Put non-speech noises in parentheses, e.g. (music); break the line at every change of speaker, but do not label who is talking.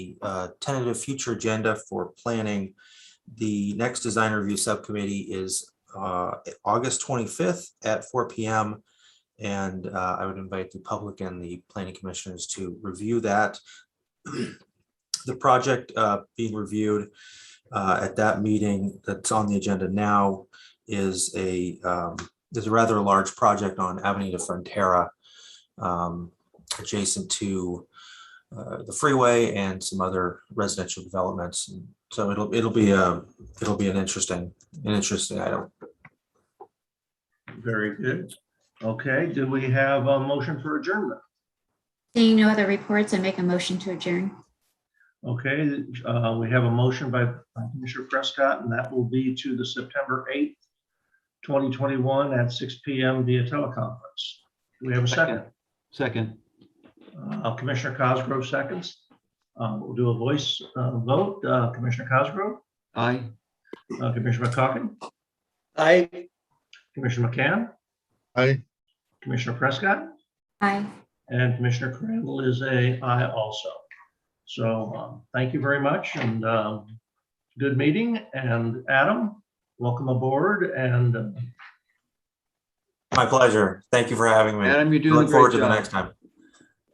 uh, tentative future agenda for planning. The next design review subcommittee is uh, August 25th at four PM. And uh, I would invite the public and the planning commissioners to review that. (clears throat) The project uh, being reviewed uh, at that meeting that's on the agenda now is a, um, is a rather large project on Avenida Frontera um, adjacent to uh, the freeway and some other residential developments. And So it'll, it'll be a, it'll be an interesting, an interesting item.
Very good. Okay, do we have a motion for adjournment?
Seeing no other reports, I make a motion to adjourn.
Okay, uh, we have a motion by Commissioner Prescott, and that will be to the September 8th, 2021 at 6 PM via teleconference. Do we have a second?
Second,
Uh, Commissioner Cosgrove seconds. Uh, We'll do a voice uh, vote. Uh, Commissioner Cosgrove,
aye.
uh, Commissioner McCoggin,
Aye.
Commissioner McCann,
Aye.
Commissioner Prescott.
Aye.
And Commissioner Crandall is a aye also. So um, thank you very much and um, good meeting. And Adam, welcome aboard and uh,
My pleasure. Thank you for having me.
Adam, you're doing a
Look forward
great
to the
job.
next time.